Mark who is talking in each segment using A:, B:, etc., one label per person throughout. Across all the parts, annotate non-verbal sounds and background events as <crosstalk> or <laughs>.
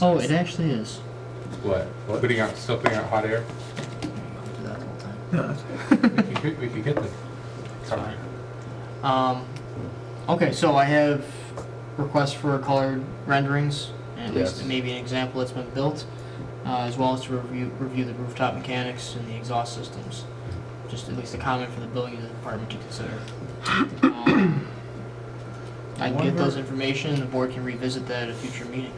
A: Oh, it actually is.
B: What? Putting out, still putting out hot air?
A: I'll do that the whole time.
B: We
C: <laughs>
B: could, we could get the cover.
A: Um, okay, so I have requests for colored renderings, at least
B: Yes.
A: maybe an example that's been built, uh, as well as to review, review the rooftop mechanics and the exhaust systems. Just at least a comment for the building department to consider. Um, I can get those information, the board can revisit that at a future meeting.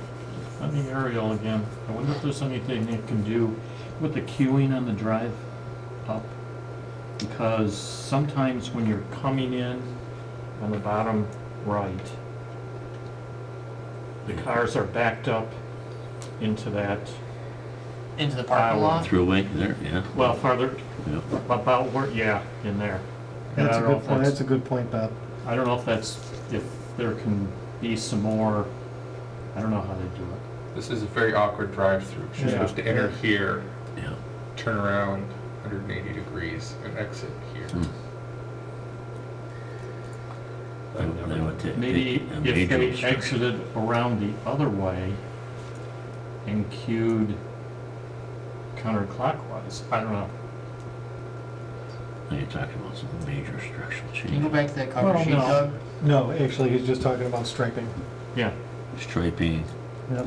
D: On the aerial again, I wonder if there's anything they can do with the queuing on the drive up? Because sometimes when you're coming in on the bottom right, the cars are backed up into that,
A: Into the parking
D: Wow.
A: lot?
E: Throughway there, yeah,
D: well, farther,
E: yeah.
D: about where, yeah, in there. And I
C: That's a
D: don't know
C: good
D: if
C: point,
D: that's-
C: that's a good point, Bob.
D: I don't know if that's, if there can be some more, I don't know how they do it.
B: This is a very awkward drive-through. You're
D: Yeah.
B: supposed to enter here,
E: Yeah.
B: turn around 180 degrees, and exit here.
E: Hmm.
B: I don't
E: They
B: know.
E: would take-
D: Maybe
E: take a
D: if
E: major
D: they
E: obstruction.
D: exited around the other way and queued counterclockwise, I don't know.
E: Now You're talking about some major structural
A: Can you go
E: change,
A: back to that cover
D: Well,
A: sheet,
D: no.
A: Doug?
C: No, actually, he's just talking about striping.
D: Yeah,
E: striping,
C: Yep.
D: of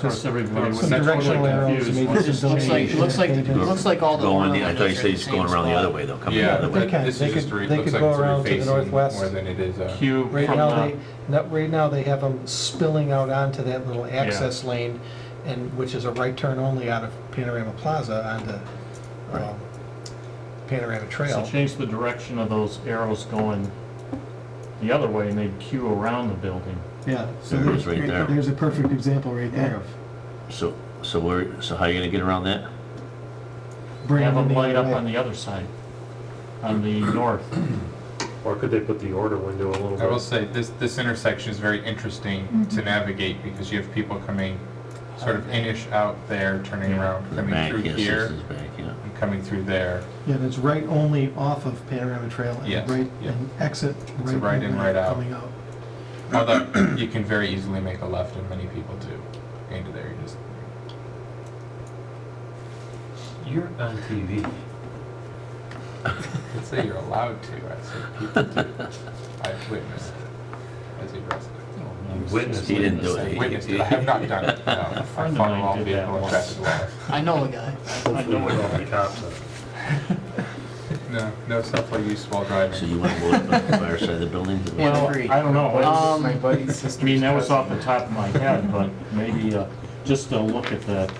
D: course,
C: Just
D: everybody was
C: some
B: that's what
C: directional
B: I'm
C: arrows.
D: confused.
C: maybe
D: Well,
A: It
D: This
C: some
A: just looks like,
C: delineation
A: looks like,
C: pages.
A: looks like all the
E: going
A: corner
E: the, I thought you
A: windows are
E: said
A: in the
E: it's going
A: same
E: around the other
A: spot.
E: way, though, coming the
B: Yeah,
E: other way.
C: They can-
B: but this
C: they
B: is just,
C: could-
B: re-
C: they
B: looks
C: could
B: like
C: go
B: it's
C: around to the
B: refacing
C: northwest.
B: more than it is, uh,
D: queue
C: Right
D: from
C: now, they,
D: the,
C: not, right now, they have them spilling out onto that little access lane, and, which is a right turn only out of Panorama Plaza onto, um, Panorama
D: so
C: Trail.
D: change the direction of those arrows going the other way and they'd queue around the building.
F: Yeah, so
E: There it is
F: there's,
E: right there.
F: there's a perfect example right there of
E: So, so where, so how are you gonna get around that?
C: bringing
D: Have them
C: the
D: light up
C: other
D: on
C: way.
D: the other side, on the north.
G: Or could they put the order window a little
B: I will
G: bit?
B: say, this, this intersection is very
C: Mm-hmm.
B: interesting to navigate because you have people coming sort of inish out there, turning
D: Yeah.
B: around,
E: The
B: coming
E: back,
B: through
E: yes,
B: here,
E: This is back, yeah.
B: and coming through there.
C: Yeah, and it's right only off of Panorama Trail
B: Yes,
C: and right,
B: yeah.
C: and exit
B: It's
C: right.
B: a right in,
C: and
B: right out.
C: Coming out.
B: Although you can very easily make a left, and many people do. Into there, you just
G: You're on TV.
B: <laughs> I'd say you're allowed to. I'd say people do. I've witnessed it as a
D: Oh,
B: resident.
G: Witness.
E: He didn't do it. He-
B: Witnessed it. I have not done
D: <laughs>
B: it. No, I
D: friend of
B: follow
D: mine
B: all
D: did
B: vehicle
D: that
B: and
D: once.
B: traffic laws.
A: I know a guy.
G: Hopefully
D: know.
G: we're all the cops. on it.
B: <laughs> No, no self use while driving.
E: So you wanna load up on the fire side of the building?
A: Yeah.
D: Well,
A: Agreed.
D: I don't know. It's-
A: Um, My
D: I mean, that was off the top of my head, but maybe uh, just a look at that.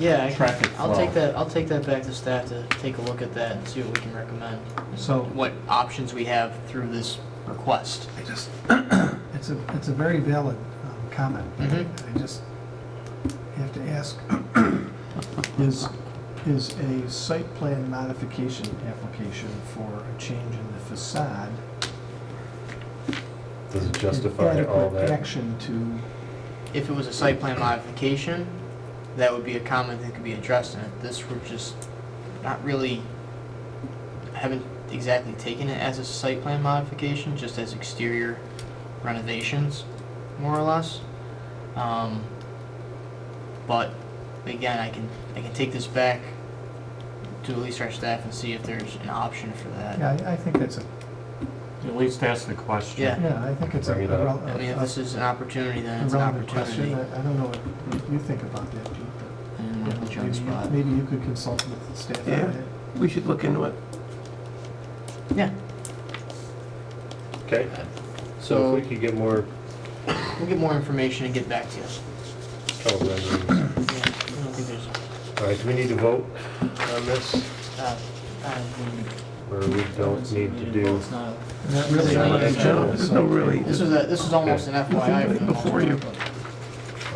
A: Yeah,
D: Traffic
A: I- I'll
D: flow.
A: take that, I'll take that back to staff to take a look at that and see what we can recommend.
C: So-
A: What options we have through this request.
C: I just, <clears throat> it's a, it's a very valid um, comment.
A: Mhm.
C: I just have to ask, <clears throat> is, is a site plan modification application for a change in the facade?
G: Does it justify
C: an
G: all
C: Adequate
G: that?
C: action to,
A: If it was a site plan modification, that would be a comment that could be addressed in it. This, we're just not really, haven't exactly taken it as a site plan modification, just as exterior renovations, more or less. Um, But, again, I can, I can take this back to at least our staff and see if there's an option for that.
C: yeah, I- I think that's a,
D: At least ask the question.
A: Yeah.
C: yeah, I think it's a
G: Bring it
C: a
G: up.
C: rel-
A: I mean, if
C: a-
A: this is an opportunity,
C: uh, a
A: then it's an
C: relevant question.
A: opportunity. Mm-hmm.
C: I I don't know what you think about that, Pete,
A: I didn't
C: but
A: want to
C: you know,
A: jump
C: maybe
A: spot.
C: you- maybe you could consult with the staff on
F: Yeah.
C: that.
F: We should look into it.
A: Yeah,
G: Okay, so
A: so
G: if we could get more
A: we'll get more information and get back to you.
G: color renderings.
A: Yeah, I don't think there's,
G: All right, do we need to vote on this?
A: uh, uh, we-
G: Or we don't need to do?
A: It's not a-
C: And that really
A: Yeah.
C: is a general
F: There's no really,
A: This is a, this is almost an FYI for the most
F: Before you.
A: part.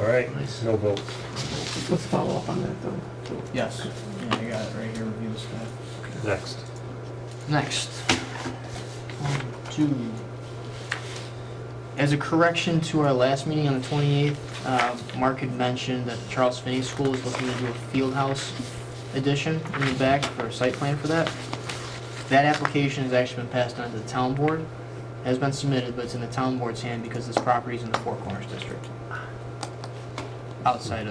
G: All right, no vote.
F: let's follow up on that though.
A: Yes, yeah, I got it right here, review the stuff.
G: Next.
A: Next. One, two. As a correction to our last meeting on the 28th, uh, Mark had mentioned that the Charles Finney School is looking to do a field house addition in the back for a site plan for that. That application has actually been passed on to the town board, has been submitted, but it's in the town board's hand because this property is in the Four Corners District. Outside of.